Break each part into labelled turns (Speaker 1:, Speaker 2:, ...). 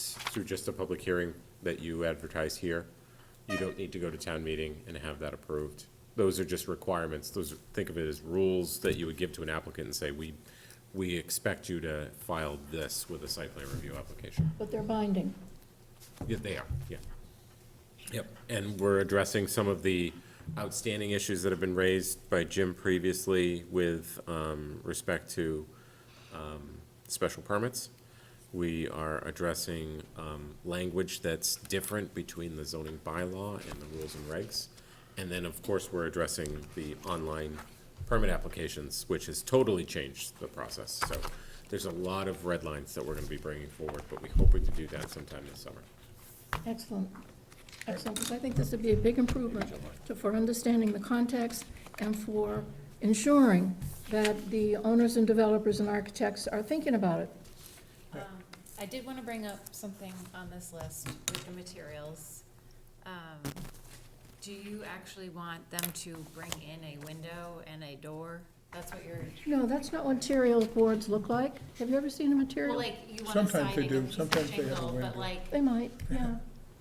Speaker 1: through just a public hearing that you advertise here. You don't need to go to town meeting and have that approved. Those are just requirements. Those, are- think of it as rules that you would give to an applicant and say, we, we expect you to file this with a site plan review application.
Speaker 2: But they're binding.
Speaker 1: Yeah, they are, yeah. Yep, and we're addressing some of the outstanding issues that have been raised by Jim previously with um, respect to um, special permits. We are addressing um, language that's different between the zoning bylaw and the rules and regs. And then, of course, we're addressing the online permit applications, which has totally changed the process. So there's a lot of red lines that we're going to be bringing forward, but we're hoping to do that sometime this summer.
Speaker 2: Excellent, excellent, because I think this would be a big improvement to- for understanding the context and for ensuring that the owners and developers and architects are thinking about it.
Speaker 3: Um, I did want to bring up something on this list with the materials. Um, Do you actually want them to bring in a window and a door? That's what you're,
Speaker 2: No, that's not what materials boards look like. Have you ever seen a
Speaker 3: well,
Speaker 2: material?
Speaker 3: like, you want a
Speaker 4: Sometimes
Speaker 3: siding
Speaker 4: they
Speaker 3: with
Speaker 4: do,
Speaker 3: a piece of
Speaker 4: sometimes they have a
Speaker 3: shingle, but
Speaker 4: window.
Speaker 3: like.
Speaker 2: They might, yeah.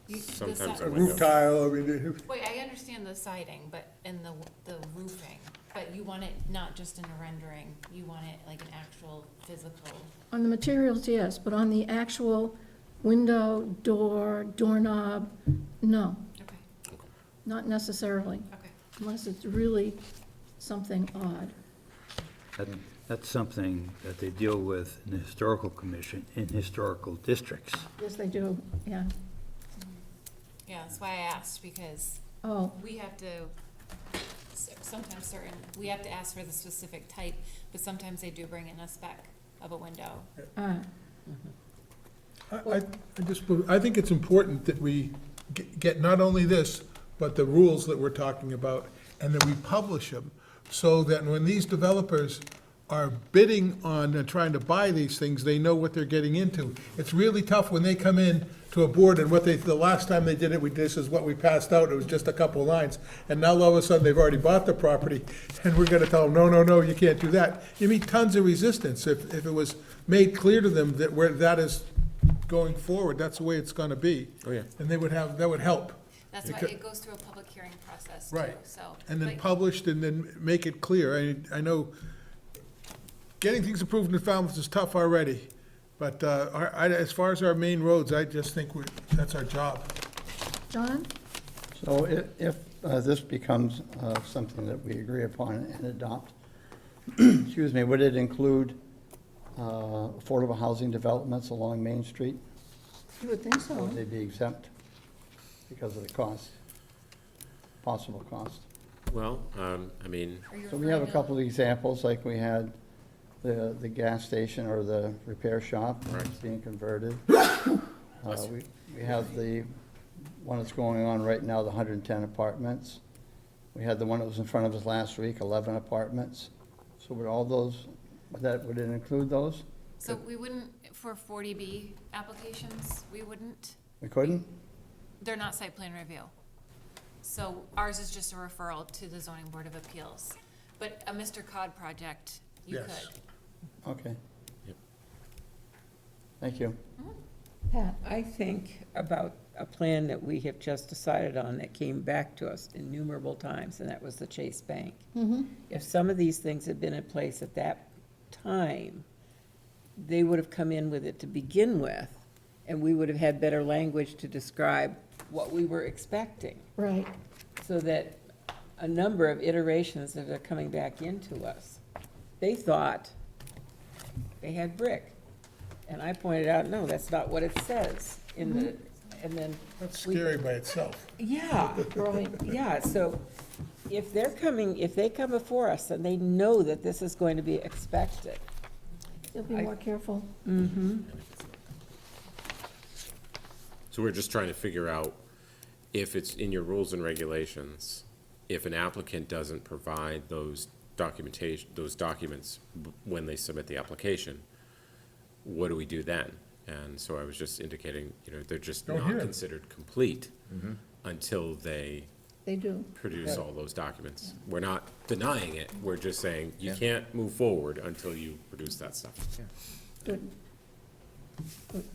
Speaker 3: you- the
Speaker 1: Sometimes
Speaker 3: si-
Speaker 1: a
Speaker 4: A
Speaker 1: window.
Speaker 4: roof tile, I mean, it-
Speaker 3: Wait, I understand the siding, but, and the, the roofing, but you want it not just in a rendering, you want it like an actual physical.
Speaker 2: On the materials, yes, but on the actual window, door, doorknob, no,
Speaker 3: Okay,
Speaker 2: not necessarily,
Speaker 3: okay.
Speaker 2: unless it's really something odd.
Speaker 5: That- That's something that they deal with in the historical commission, in historical districts.
Speaker 2: Yes, they do, yeah.
Speaker 3: Yeah, that's why I asked, because
Speaker 2: Oh,
Speaker 3: We have to, s- sometimes certain, we have to ask for the specific type, but sometimes they do bring in a spec of a window.
Speaker 2: ah,
Speaker 4: I, I I just, I think it's important that we ge- get not only this, but the rules that we're talking about, and that we publish them, so that when these developers are bidding on, and trying to buy these things, they know what they're getting into. It's really tough when they come in to a board and what they, the last time they did it, we, this is what we passed out, it was just a couple of lines. And now all of a sudden, they've already bought the property, and we're gonna tell them, no, no, no, you can't do that. You meet tons of resistance if, if it was made clear to them that where that is going forward, that's the way it's gonna be.
Speaker 1: Oh, yeah.
Speaker 4: And they would have, that would help.
Speaker 3: That's why
Speaker 4: Because-
Speaker 3: it goes through a public hearing process too,
Speaker 4: Right.
Speaker 3: so.
Speaker 4: And then
Speaker 3: but-
Speaker 4: published and then make it clear. I, I know getting things approved in Falmouth is tough already. But, uh, our, I, as far as our main roads, I just think we, that's our job.
Speaker 2: John?
Speaker 6: So if, if uh, this becomes uh, something that we agree upon and adopt, excuse me, would it include uh, affordable housing developments along Main Street?
Speaker 2: You would think
Speaker 6: Or
Speaker 2: so.
Speaker 6: Would they be exempt because of the cost, possible cost?
Speaker 1: Well, um, I mean,
Speaker 3: Are you
Speaker 6: So we have
Speaker 3: referring
Speaker 6: a
Speaker 3: to-
Speaker 6: couple of examples, like we had the, the gas station or the repair shop that's being converted. Uh, We we have the one that's going on right now, the 110 apartments. We had the one that was in front of us last week, 11 apartments. So would all those, would that, would it include those?
Speaker 3: So we wouldn't, for forty B applications, we wouldn't,
Speaker 6: We couldn't?
Speaker 3: they're not site plan review. So ours is just a referral to the zoning board of appeals, but a Mr. Cod project, you
Speaker 4: Yes.
Speaker 3: could.
Speaker 6: Okay.
Speaker 1: Yep.
Speaker 6: Thank you.
Speaker 2: Pat,
Speaker 7: I think about a plan that we have just decided on that came back to us innumerable times, and that was the Chase Bank. If some of these things had been in place at that time, they would have come in with it to begin with, and we would have had better language to describe what we were expecting,
Speaker 2: right,
Speaker 7: so that a number of iterations that are coming back into us, they thought they had brick. And I pointed out, no, that's not what it says in the, and then.
Speaker 4: That's
Speaker 7: we-
Speaker 4: scary by itself.
Speaker 7: Yeah,
Speaker 2: right.
Speaker 7: yeah, so if they're coming, if they come before us and they know that this is going to be expected,
Speaker 2: You'll be
Speaker 7: I-
Speaker 2: more careful.
Speaker 1: so we're just trying to figure out if it's in your rules and regulations, if an applicant doesn't provide those documentation, those documents b- when they submit the application, what do we do then? And so I was just indicating, you know, they're just
Speaker 4: Don't
Speaker 1: not
Speaker 4: hear 'em.
Speaker 1: considered complete until they
Speaker 2: They do.
Speaker 1: produce all those documents. We're not denying it, we're just saying you can't move forward until you produce that stuff.
Speaker 2: Good. Good.